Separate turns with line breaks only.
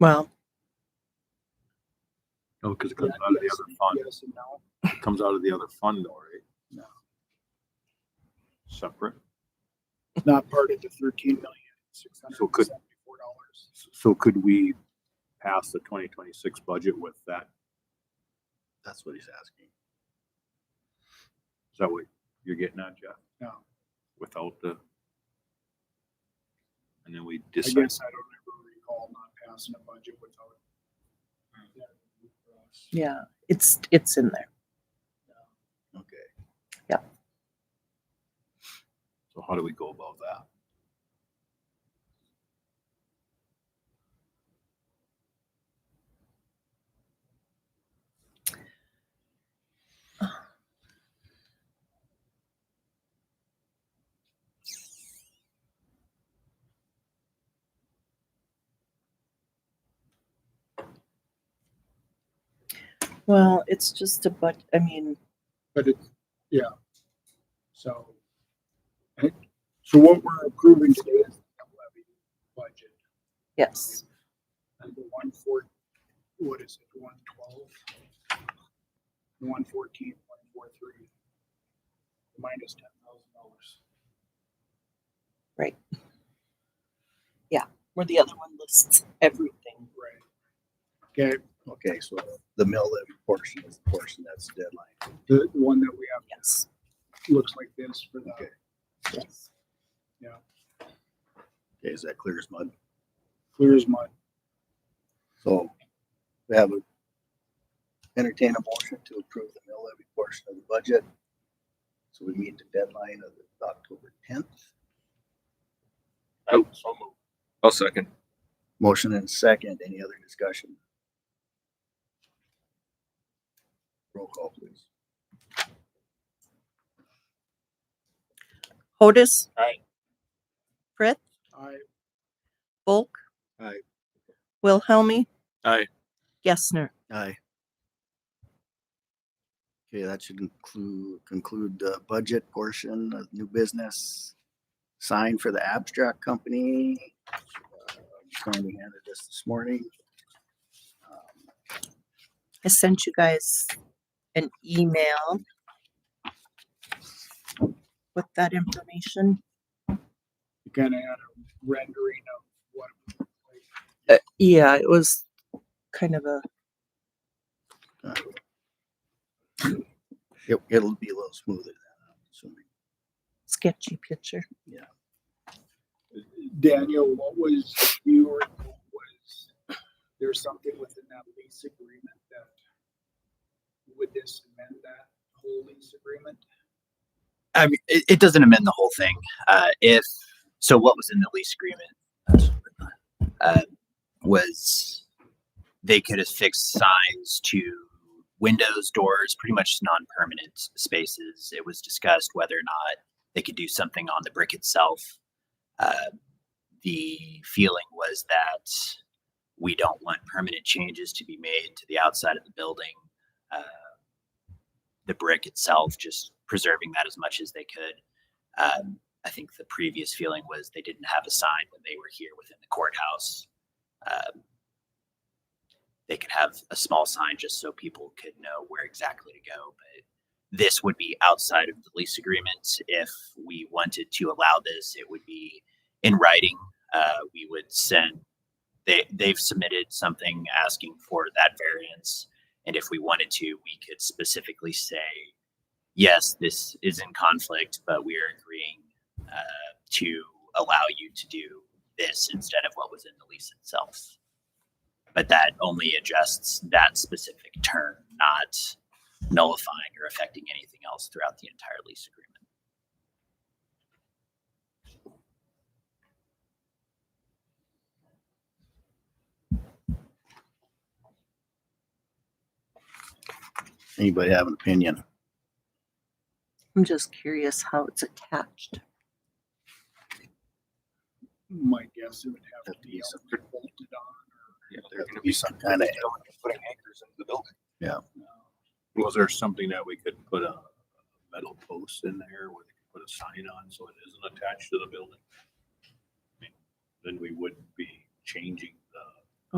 Well,
No, because Oh, it
Yeah,
comes out of the
yes,
other fund.
Yes and no.
It comes out of the other fund though, right?
No.
Separate.
Not part of the thirteen million, six hundred
So
and
could-
seventy-four dollars.
So could we pass the twenty twenty-six budget with that?
That's what he's asking.
Is that what you're getting at, Jeff?
No.
Without the. And then we
I
decide,
guess I don't ever recall not passing a budget without.
yeah, it's, it's in there.
Okay.
so how do we go about that?
Well, it's just a but, I mean,
But it, yeah. So. So what we're approving today is the levy budget.
yes.
And the one four, what is it, one twelve? One fourteen, one four three. Minus ten thousand dollars.
Where the other one lists everything.
Right. Okay,
Okay, so the mill levy portion is the portion that's the deadline.
the the one that we have
Yes,
looks like this uh, for the,
Okay.
yes.
Okay, is that clear as mud?
clear as mud.
So we have a entertain a motion to approve the mill levy portion of the budget. So we meet the deadline of the October tenth.
I'll second.
Motion and second. Any other discussion? Roll call, please.
Hodis.
Aye.
Frith,
I,
Bulk.
Aye.
Wilhelmie.
Aye.
Gessner.
Aye. Okay, that should include, conclude the budget portion of new business. Sign for the abstract company. Uh, Tony handed this this morning. Um,
I sent you guys an email with that information.
you kinda had a rendering of what,
Uh, yeah, it was kind of a,
It, it'll be a little smoother than that, assuming.
sketchy picture.
Daniel, what was your, was there's something within that lease agreement that would this amend that whole lease agreement?
I mean, it, it doesn't amend the whole thing. Uh, if so, what was in the lease agreement uh, was they could affix signs to windows, doors, pretty much non-permanent spaces. It was discussed whether or not they could do something on the brick itself. Uh, the feeling was that we don't want permanent changes to be made to the outside of the building. Uh, the brick itself, just preserving that as much as they could. Um, I think the previous feeling was they didn't have a sign when they were here within the courthouse. Um, they could have a small sign just so people could know where exactly to go. But this would be outside of the lease agreement. If we wanted to allow this, it would be in writing. Uh, we would send. They, they've submitted something asking for that variance. And if we wanted to, we could specifically say, yes, this is in conflict, but we are agreeing uh, to allow you to do this instead of what was in the lease itself. But that only adjusts that specific term, not nullifying or affecting anything else throughout the entire lease agreement.
Anybody have an opinion?
I'm just curious how it's attached.
My guess it would have to be
Lease
bolted on.
There's gonna be some kind of,
Putting anchors into the building.
Was there something that we could put a metal post in there where they could put a sign on so it isn't attached to the building? I mean, Then we wouldn't be changing